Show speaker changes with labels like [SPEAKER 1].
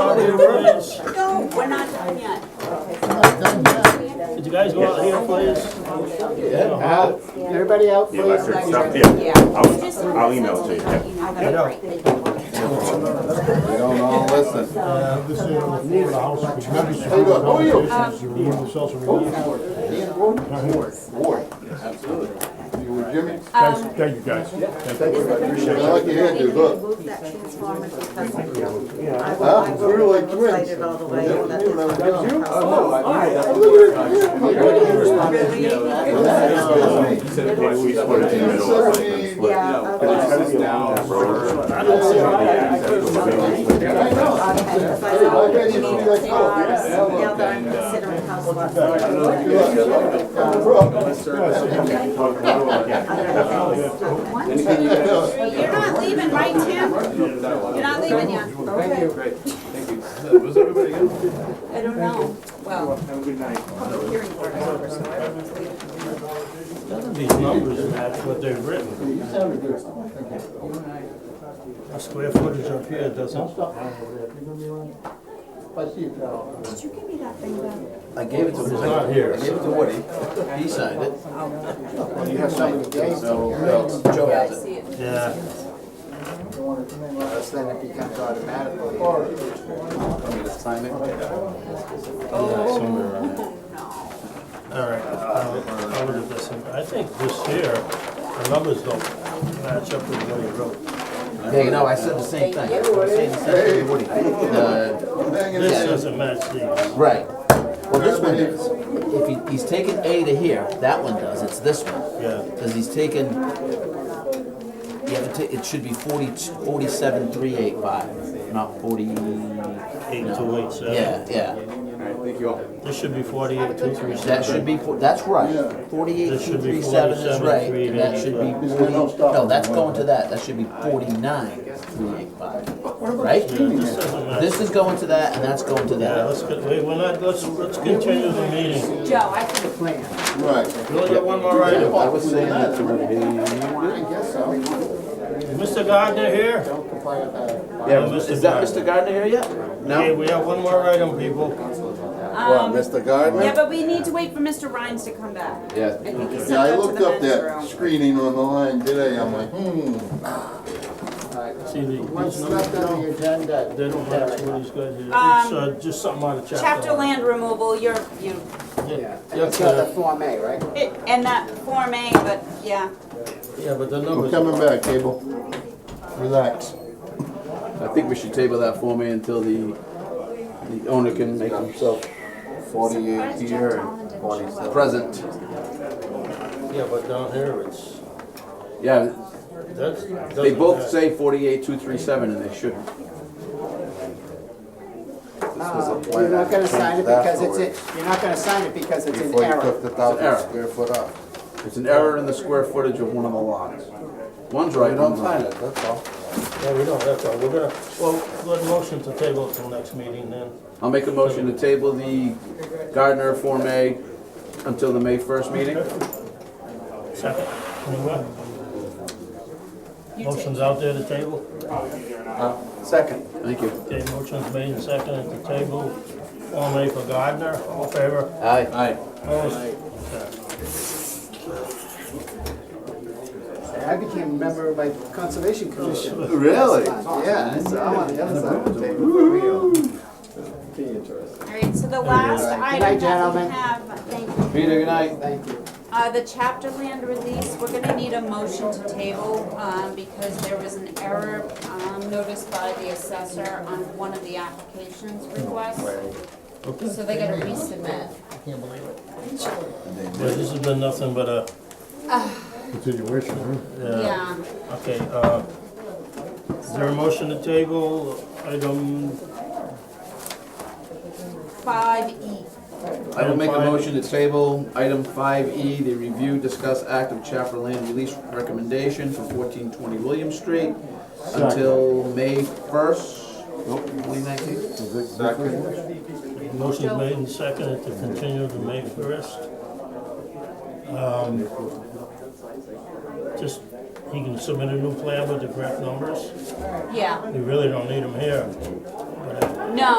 [SPEAKER 1] your words.
[SPEAKER 2] No, we're not done yet.
[SPEAKER 1] Did you guys go out here, please?
[SPEAKER 3] Uh, Everybody out,
[SPEAKER 4] The
[SPEAKER 3] please.
[SPEAKER 4] electric stuff, yeah,
[SPEAKER 2] We just
[SPEAKER 4] I'll,
[SPEAKER 2] want
[SPEAKER 4] I'll
[SPEAKER 2] to
[SPEAKER 4] email it
[SPEAKER 2] settle
[SPEAKER 4] to you,
[SPEAKER 2] down.
[SPEAKER 4] yeah.
[SPEAKER 2] Have a break.
[SPEAKER 5] We don't all listen.
[SPEAKER 6] This is the house, which may be
[SPEAKER 3] How you doing? Who are you?
[SPEAKER 6] removed, the cells are removed.
[SPEAKER 3] Ian Ward? Ward. Ward. Absolutely. You with Jimmy?
[SPEAKER 6] Guys, thank you guys.
[SPEAKER 3] I like your hairdo, look.
[SPEAKER 7] Move that transformer because I
[SPEAKER 3] Huh? We're like twins.
[SPEAKER 7] did all the way.
[SPEAKER 3] Yeah,
[SPEAKER 7] that
[SPEAKER 3] you Oh, and I were
[SPEAKER 7] this-
[SPEAKER 3] down.
[SPEAKER 4] If we split it in the middle, it's like this split.
[SPEAKER 7] Yeah, okay.
[SPEAKER 4] That road,
[SPEAKER 1] I don't see
[SPEAKER 4] yeah, exactly, we're gonna split it.
[SPEAKER 3] I know.
[SPEAKER 7] Because I
[SPEAKER 3] Hey,
[SPEAKER 7] know
[SPEAKER 3] I bet you should be like,
[SPEAKER 7] it's
[SPEAKER 3] oh,
[SPEAKER 7] ours.
[SPEAKER 3] yeah.
[SPEAKER 7] Now that I'm considering house lots.
[SPEAKER 3] Good luck. Have a problem.
[SPEAKER 2] You're not leaving, right, Tim? You're not leaving yet? Thank you. Great, thank you. Was everybody good? I don't know. Well, public hearing board over, so I don't know.
[SPEAKER 1] None of these numbers match what they've written. The square footage up here doesn't.
[SPEAKER 7] Did you give me that thing back?
[SPEAKER 8] I gave it to Woody. I gave it to Woody. He signed it.
[SPEAKER 3] You have something to gain.
[SPEAKER 8] Joe has it.
[SPEAKER 1] Yeah.
[SPEAKER 3] Because then it becomes automatically. All
[SPEAKER 8] Want me to sign it?
[SPEAKER 1] somewhere around there. All right, I'll, I'll look at this, and I think this year, the numbers don't match up with what he wrote.
[SPEAKER 8] Yeah, you know, I said the same thing. I was saying the same thing to Woody. The-
[SPEAKER 1] This doesn't match these.
[SPEAKER 8] Right. Well, this one is, if he, he's taken A to here, that one does, it's this one.
[SPEAKER 1] Yeah.
[SPEAKER 8] Because he's taken, you have to ta- it should be forty, forty-seven, three, eight, five, not forty.
[SPEAKER 1] Eight two eight seven.
[SPEAKER 8] Yeah, yeah.
[SPEAKER 1] This should be forty-eight, two three
[SPEAKER 8] That should
[SPEAKER 1] seven.
[SPEAKER 8] be, fo- that's right. Forty-eight,
[SPEAKER 1] This
[SPEAKER 8] two,
[SPEAKER 1] should
[SPEAKER 8] three,
[SPEAKER 1] be
[SPEAKER 8] seven is
[SPEAKER 1] 47,
[SPEAKER 8] right,
[SPEAKER 1] three,
[SPEAKER 8] and that
[SPEAKER 1] eight,
[SPEAKER 8] should
[SPEAKER 1] eight,
[SPEAKER 8] be
[SPEAKER 1] five.
[SPEAKER 8] forty, no, that's going to that, that should be forty-nine, three, eight, five, right?
[SPEAKER 1] This doesn't match.
[SPEAKER 8] This is going to that, and that's going to
[SPEAKER 1] Yeah,
[SPEAKER 8] that.
[SPEAKER 1] let's, get- wait, we're not, let's, let's continue the meeting.
[SPEAKER 2] Joe, I think it's
[SPEAKER 3] Right.
[SPEAKER 1] You only got one more item.
[SPEAKER 8] I was saying that to
[SPEAKER 3] I guess so.
[SPEAKER 1] Mr. Gardner here?
[SPEAKER 8] Yeah,
[SPEAKER 1] Oh, Mr.
[SPEAKER 8] is that
[SPEAKER 1] Gardner.
[SPEAKER 8] Mr. Gardner here yet?
[SPEAKER 1] Okay,
[SPEAKER 8] No?
[SPEAKER 1] we have one more item, people.
[SPEAKER 2] Um,
[SPEAKER 5] Mr. Gardner?
[SPEAKER 2] Yeah, but we need to wait for Mr. Rhines to come back.
[SPEAKER 8] Yeah.
[SPEAKER 2] I think he
[SPEAKER 3] Yeah,
[SPEAKER 2] sent
[SPEAKER 3] I
[SPEAKER 2] out
[SPEAKER 3] looked
[SPEAKER 2] to
[SPEAKER 3] up
[SPEAKER 2] the men's
[SPEAKER 3] that
[SPEAKER 2] room.
[SPEAKER 3] screening on the line today, I'm like, hmm.
[SPEAKER 1] See, the-
[SPEAKER 3] What's left on the agenda?
[SPEAKER 1] they don't match what he's got here. It's,
[SPEAKER 2] Um,
[SPEAKER 1] uh, just something out of chapter.
[SPEAKER 2] Chapter land removal, you're, you,
[SPEAKER 1] Yeah,
[SPEAKER 9] It's got the Form A, right?
[SPEAKER 2] it- and that Form A, but, yeah.
[SPEAKER 1] yeah, but the
[SPEAKER 3] We're
[SPEAKER 1] numbers.
[SPEAKER 3] coming back, Cable. Relax.
[SPEAKER 8] I think we should table that for me until the, the owner can make himself
[SPEAKER 5] Forty-eight here and forty-seven.
[SPEAKER 8] present.
[SPEAKER 1] Yeah, but down here, it's,
[SPEAKER 8] Yeah,
[SPEAKER 1] that's.
[SPEAKER 8] they
[SPEAKER 1] doesn't
[SPEAKER 8] both
[SPEAKER 1] match.
[SPEAKER 8] say forty-eight, two, three, seven, and they shouldn't.
[SPEAKER 9] You're not gonna sign it because it's, in- you're not gonna sign it because it's in
[SPEAKER 5] Before you
[SPEAKER 9] error.
[SPEAKER 5] took the
[SPEAKER 8] error.
[SPEAKER 5] thousand square foot off.
[SPEAKER 8] It's an error in the square footage of one of the lots. One's right,
[SPEAKER 5] You don't
[SPEAKER 8] one's
[SPEAKER 5] sign
[SPEAKER 8] not.
[SPEAKER 5] it, that's all.
[SPEAKER 1] Yeah, we don't, that's all, we're gonna, well, good motion to table it till next meeting then.
[SPEAKER 8] I'll make a motion to table the Gardner Form A until the May first meeting.
[SPEAKER 1] Second, anyway. Motion's out there to table.
[SPEAKER 5] Second.
[SPEAKER 8] Thank you.
[SPEAKER 1] Okay, motion's made and second at the table. Form A for Gardner, all in favor?
[SPEAKER 8] Aye. Aye.
[SPEAKER 1] Opposed?
[SPEAKER 9] I became a member of my conservation commission.
[SPEAKER 5] Really?
[SPEAKER 9] Yeah, I saw I'm on the other side of the table.
[SPEAKER 2] All right, so the last item
[SPEAKER 9] night,
[SPEAKER 2] that we
[SPEAKER 9] gentlemen.
[SPEAKER 2] have, thank you.
[SPEAKER 8] Peter, good night.
[SPEAKER 9] Thank you.
[SPEAKER 2] Uh, the chapter land release, we're gonna need a motion to table, um, because there was an error, um, noticed by the assessor on one of the applications requests. So they gotta resubmit.
[SPEAKER 1] Yeah, this has been nothing but a,
[SPEAKER 6] Continuation, huh?
[SPEAKER 1] yeah,
[SPEAKER 2] Yeah,
[SPEAKER 1] okay, uh, is there a motion to table item
[SPEAKER 2] five E.
[SPEAKER 8] I will make a motion to table item five E, the review, discuss act of chapter land release recommendation for fourteen twenty William Street until May first, nope, twenty nineteen.
[SPEAKER 5] Second.
[SPEAKER 1] Motion made and seconded to continue to May first. Um, Just, he can submit a new plan with the correct numbers.
[SPEAKER 2] Yeah,
[SPEAKER 1] We really don't need them here.